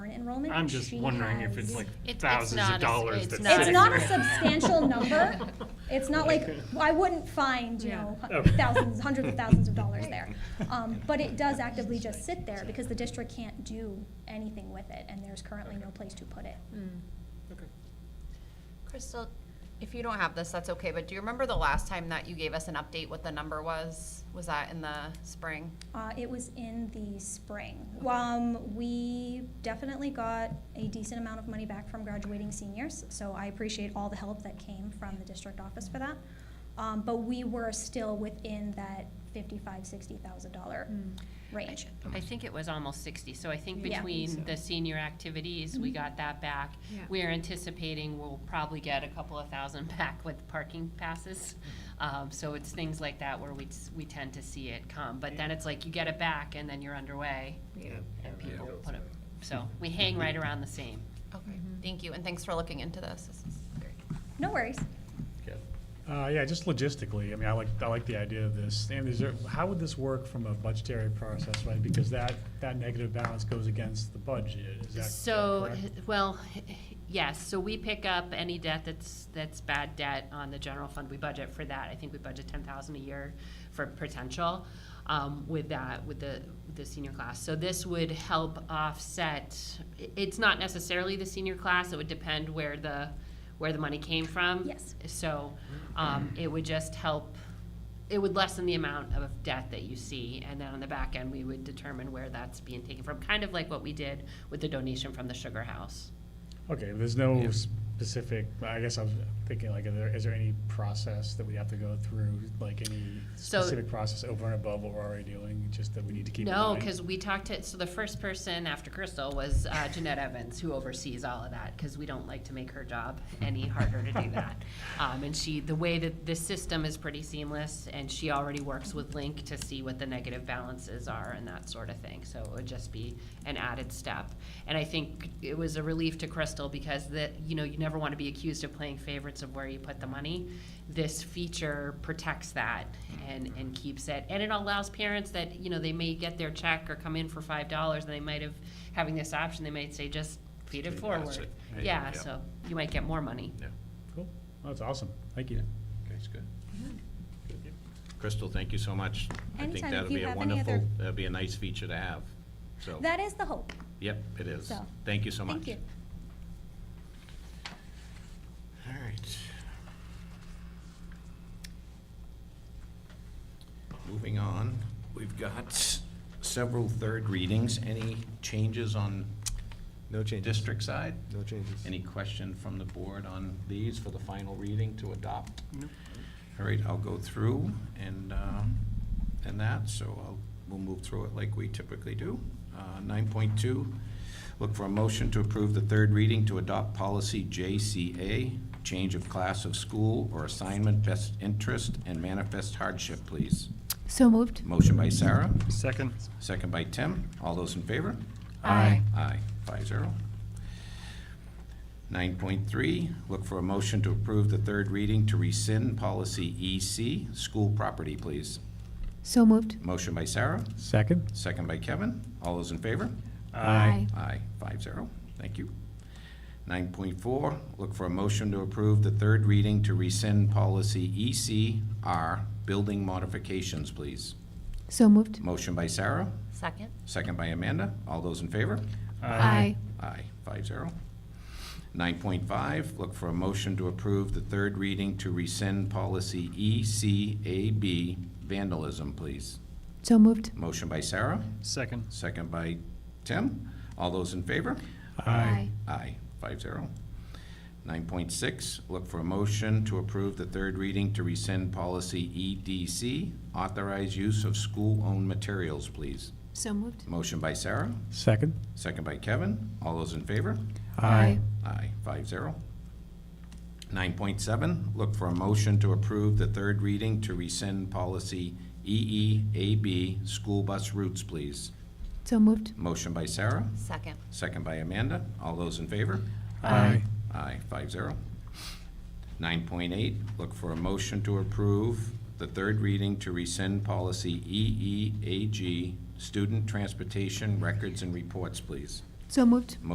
enrollment. I'm just she wondering if it's has- like It- it's thousands not a- of dollars it's that's not a It's sitting not a there. substantial number. It's not like, I wouldn't find, you Yeah. know, Oh. thousands, hundreds of thousands of dollars there. Um, But it does actively just sit there because the district can't do anything with it and there's currently no place to put it. Okay. Crystal, if you don't have this, that's okay, but do you remember the last time that you gave us an update what the number was? Was that in the spring? Uh, It was in the spring. Um, We definitely got a decent amount of money back from graduating seniors, so I appreciate all the help that came from the district office for that. Um, But we were still within that fifty-five, sixty thousand dollar Mm. range. I think it was almost sixty, so I think Yeah. between the senior activities, we got that back. Mm-hmm. Yeah. We're anticipating we'll probably get a couple of thousand back with parking passes. Um, so it's things like that where we, s- we tend to see it come, but then it's like you get it back and then you're underway Yeah. and people put it, so we hang right around the same. Okay, thank you, and thanks for looking into this. This is great. No worries. Uh, yeah, just logistically, I mean, I like, I like the idea of this. And is there, how would this work from a budgetary process, right? Because that, that negative balance goes against the budget, is that So, correct? well, yes, so we pick up any debt that's, that's bad debt on the general fund, we budget for that, I think we budget ten thousand a year for potential, um, with that, with the, with the senior class, so this would help offset, i- it's not necessarily the senior class, it would depend where the, where the money came from. Yes. So, um, it would just help, it would lessen the amount of debt that you see, and then on the back end, we would determine where that's being taken from, kind of like what we did with the donation from the Sugar House. Okay, there's no specific, I guess I was thinking, like, is there, is there any process that we have to go through? Like, any So- specific process over and above what we're already doing, just that we need to keep in No, mind? because we talked to, so the first person after Crystal was uh, Jeanette Evans, who oversees all of that, because we don't like to make her job any harder to do that. Um, and she, the way that this system is pretty seamless, and she already works with Link to see what the negative balances are and that sort of thing, so it would just be an added step. And I think it was a relief to Crystal, because that, you know, you never want to be accused of playing favorites of where you put the money. This feature protects that and, and keeps it, and it allows parents that, you know, they may get their check or come in for five dollars, and they might have, having this option, they might say, just feed it Feed it, that's forward. it. Yeah, Yeah. so you might get more money. Yeah, Cool, that's awesome, thank you. okay, it's good. Good. Crystal, thank you so much. I think Anytime. If that'll you be a have any wonderful, other- that'll be a nice feature to have, so. That is the hope. Yep, it is. So, Thank you so much. Thank you. All right. Moving on, we've got several third readings. Any changes on No changes. district side? No changes. Any question from the board on these for the final reading to adopt? All right, I'll go through and, uh, and that, so I'll, we'll move through it like we typically do. Uh, Nine point two, look for a motion to approve the third reading to adopt policy JCA, change of class of school or assignment, best interest and manifest hardship, please. So moved. Motion by Sarah, Second. second by Tim. All those in favor? Aye. Aye, five zero. Nine point three, look for a motion to approve the third reading to rescind policy EC, school property, please. So moved. Motion by Sarah, Second? second by Kevin. All those in favor? Aye. Aye, five zero. Thank you. Nine point four, look for a motion to approve the third reading to rescind policy ECR, building modifications, please. So moved. Motion by Sarah, Second? second by Amanda. All those in favor? Aye. Aye, five zero. Nine point five, look for a motion to approve the third reading to rescind policy E ECAB vandalism, please. So moved. Motion by Sarah, Second. second by Tim. All those in favor? Aye. Aye, five zero. Nine point six, look for a motion to approve the third reading to rescind policy EDC, authorize use of school-owned materials, please. So moved. Motion by Sarah, Second? second by Kevin. All those in favor? Aye, five zero. Nine point seven, look for a motion to approve the third reading to rescind policy E EEAB, school bus routes, please. So moved. Motion by Sarah, Second. second by Amanda. All those in favor? Aye. Aye, five zero. Nine point eight, look for a motion to approve the third reading to rescind policy E EEAG, student transportation records and reports, please. So moved.